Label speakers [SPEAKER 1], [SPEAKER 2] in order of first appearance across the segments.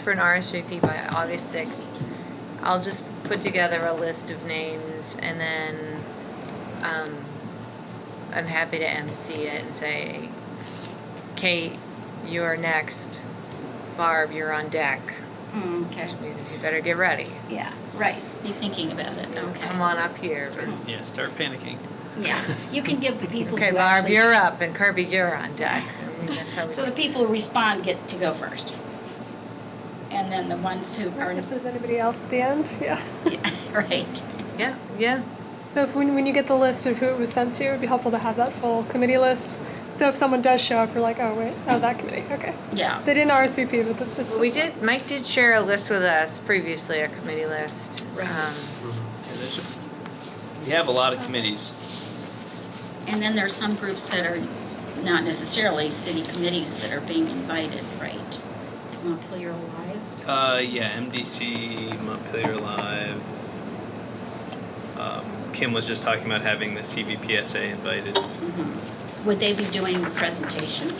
[SPEAKER 1] for an RSVP by August sixth. I'll just put together a list of names and then, um, I'm happy to MC it and say, Kate, you're next. Barb, you're on deck,
[SPEAKER 2] Mm, Okay.
[SPEAKER 1] which means you better get ready.
[SPEAKER 2] Yeah, right. Be thinking about it.
[SPEAKER 1] Come
[SPEAKER 2] Okay.
[SPEAKER 1] on up here.
[SPEAKER 3] Yeah, start panicking.
[SPEAKER 2] Yes, you can give the people.
[SPEAKER 1] Okay,
[SPEAKER 2] who
[SPEAKER 1] Barb,
[SPEAKER 2] actually-
[SPEAKER 1] you're up and Kirby, you're on deck. I mean, that's how we
[SPEAKER 2] So the people who respond get to go first. And then the ones who are,
[SPEAKER 4] If there's anybody else at the end, yeah.
[SPEAKER 2] yeah, right.
[SPEAKER 1] Yeah, yeah.
[SPEAKER 4] So if, when, when you get the list of who it was sent to, it'd be helpful to have that full committee list. So if someone does show up, we're like, oh, wait, oh, that committee, okay.
[SPEAKER 2] Yeah.
[SPEAKER 4] They didn't RSVP, but the- the.
[SPEAKER 1] We did, Mike did share a list with us previously, a committee list.
[SPEAKER 2] Right.
[SPEAKER 1] Um,
[SPEAKER 3] Yeah, there's a- We have a lot of committees.
[SPEAKER 2] And then there are some groups that are not necessarily city committees that are being invited, right? Montpelier Alive.
[SPEAKER 3] Uh, yeah, MDC, Montpelier Live. Um, Kim was just talking about having the CVPSA invited.
[SPEAKER 2] Mhm. Would they be doing the presentation?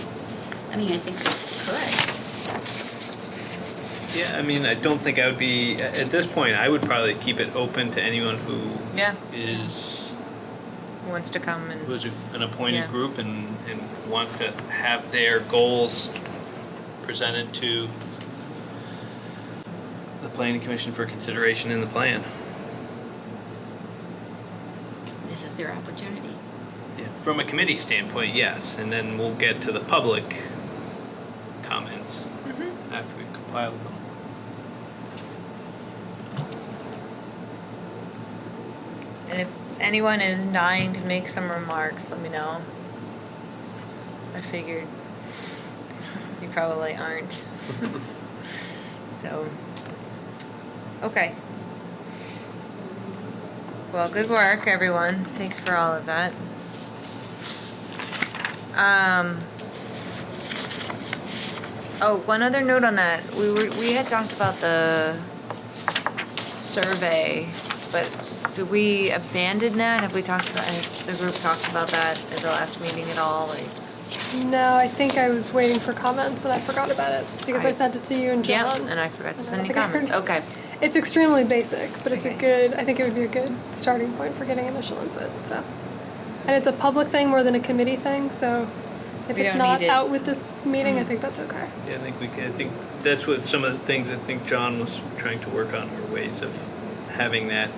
[SPEAKER 2] I mean, I think they could.
[SPEAKER 3] Yeah, I mean, I don't think I would be, a- at this point, I would probably keep it open to anyone who
[SPEAKER 1] Yeah,
[SPEAKER 3] is,
[SPEAKER 1] who wants to come and,
[SPEAKER 3] who's a- an
[SPEAKER 1] Yeah.
[SPEAKER 3] appointed group and, and wants to have their goals presented to the planning commission for consideration in the plan.
[SPEAKER 2] This is their opportunity.
[SPEAKER 3] Yeah, From a committee standpoint, yes, and then we'll get to the public comments after we've compiled them.
[SPEAKER 1] and if anyone is dying to make some remarks, let me know. I figured you probably aren't. So, okay. Well, good work, everyone. Thanks for all of that. Um, oh, one other note on that. We were, we had talked about the survey, but did we abandon that? Have we talked about, has the group talked about that at the last meeting at all? Like,
[SPEAKER 4] No, I think I was waiting for comments and I forgot about it because I,
[SPEAKER 1] I-
[SPEAKER 4] sent it to you and
[SPEAKER 1] yeah,
[SPEAKER 4] John.
[SPEAKER 1] and I forgot to send any
[SPEAKER 4] I don't
[SPEAKER 1] comments.
[SPEAKER 4] think I heard-
[SPEAKER 1] Okay.
[SPEAKER 4] It's extremely basic, but it's a
[SPEAKER 1] Okay.
[SPEAKER 4] good, I think it would be a good starting point for getting initial input, so. And it's a public thing more than a committee thing, so if
[SPEAKER 1] We
[SPEAKER 4] it's
[SPEAKER 1] don't
[SPEAKER 4] not
[SPEAKER 1] need it.
[SPEAKER 4] out with this meeting, I think that's okay.
[SPEAKER 3] Yeah, I think we can, I think that's what some of the things I think John was trying to work on were ways of having that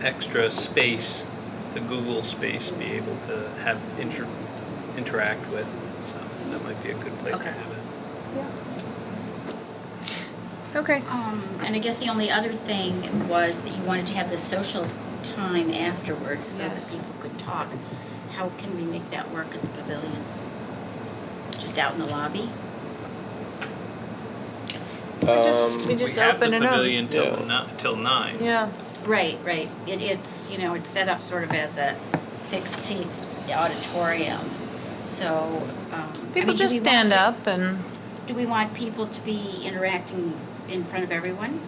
[SPEAKER 3] extra space, the Google space, be able to have inter, interact with. So that might be a good place
[SPEAKER 1] Okay.
[SPEAKER 3] to have it.
[SPEAKER 4] Yeah.
[SPEAKER 1] Okay.
[SPEAKER 2] Um, and I guess the only other thing was that you wanted to have the social time afterwards so that
[SPEAKER 1] Yes.
[SPEAKER 2] people could talk. How can we make that work at the pavilion? Just out in the lobby?
[SPEAKER 1] We just,
[SPEAKER 5] Um,
[SPEAKER 1] we just
[SPEAKER 3] we have
[SPEAKER 1] open
[SPEAKER 3] the
[SPEAKER 1] it up.
[SPEAKER 3] pavilion till
[SPEAKER 5] Yeah.
[SPEAKER 3] ni- till nine.
[SPEAKER 1] Yeah.
[SPEAKER 2] Right, right. It, it's, you know, it's set up sort of as a fixed seats auditorium. So, um, I mean,
[SPEAKER 1] People
[SPEAKER 2] do
[SPEAKER 1] just
[SPEAKER 2] we want
[SPEAKER 1] stand
[SPEAKER 2] pe-
[SPEAKER 1] up and,
[SPEAKER 2] Do we want people to be interacting in front of everyone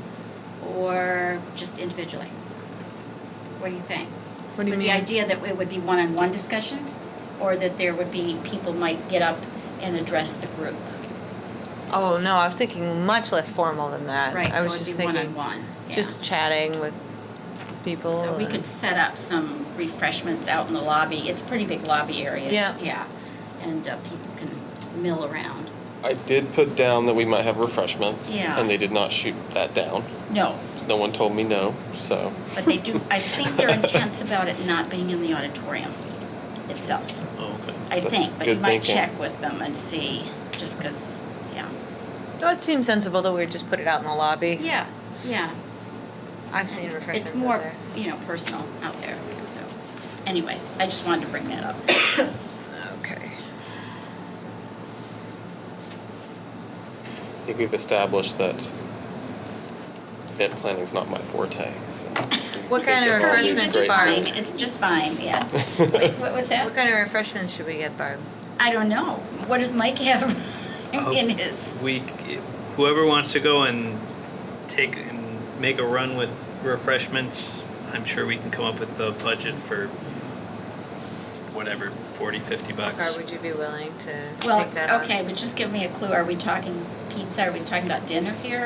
[SPEAKER 2] or just individually? What do you think?
[SPEAKER 1] what do you
[SPEAKER 2] was
[SPEAKER 1] mean?
[SPEAKER 2] the idea that it would be one-on-one discussions, or that there would be, people might get up and address the group?
[SPEAKER 1] Oh, no, I was thinking much less formal than that.
[SPEAKER 2] Right,
[SPEAKER 1] I
[SPEAKER 2] so
[SPEAKER 1] was
[SPEAKER 2] it'd
[SPEAKER 1] just
[SPEAKER 2] be
[SPEAKER 1] thinking,
[SPEAKER 2] one-on-one, yeah.
[SPEAKER 1] just chatting with people.
[SPEAKER 2] So we
[SPEAKER 1] and-
[SPEAKER 2] could set up some refreshments out in the lobby, it's a pretty big lobby area.
[SPEAKER 1] Yeah.
[SPEAKER 2] Yeah, and uh, people can mill around.
[SPEAKER 5] I did put down that we might have refreshments,
[SPEAKER 2] Yeah.
[SPEAKER 5] and they did not shoot that down.
[SPEAKER 2] No,
[SPEAKER 5] No one told me no, so
[SPEAKER 2] but they do, I think they're intense about it not being in the auditorium itself,
[SPEAKER 3] Oh, okay.
[SPEAKER 2] I
[SPEAKER 5] That's
[SPEAKER 2] think, but you
[SPEAKER 5] good
[SPEAKER 2] might
[SPEAKER 5] thinking.
[SPEAKER 2] check with them and see, just because, yeah.
[SPEAKER 1] No, it seems sensible that we would just put it out in the lobby.
[SPEAKER 2] Yeah, yeah.
[SPEAKER 1] I've seen refreshments
[SPEAKER 2] It's
[SPEAKER 1] out
[SPEAKER 2] more,
[SPEAKER 1] there.
[SPEAKER 2] you know, personal out there, so, anyway, I just wanted to bring that up.
[SPEAKER 1] Okay.
[SPEAKER 5] I think we've established that event planning's not my forte. So
[SPEAKER 1] What kind of
[SPEAKER 5] All these
[SPEAKER 1] refreshments,
[SPEAKER 5] great
[SPEAKER 1] Barb?
[SPEAKER 2] Fine, It's just fine, yeah. Wait, What
[SPEAKER 1] What
[SPEAKER 2] was that?
[SPEAKER 1] kind of refreshments should we get, Barb?
[SPEAKER 2] I don't know. What does Mike have
[SPEAKER 5] Oh.
[SPEAKER 2] in his?
[SPEAKER 3] We, whoever wants to go and take and make a run with refreshments, I'm sure we can come up with the budget for whatever, 40, 50 bucks.
[SPEAKER 1] Barb, would you be willing to
[SPEAKER 2] Well,
[SPEAKER 1] take that on?
[SPEAKER 2] okay, but just give me a clue. Are we talking pizza, are we talking about dinner here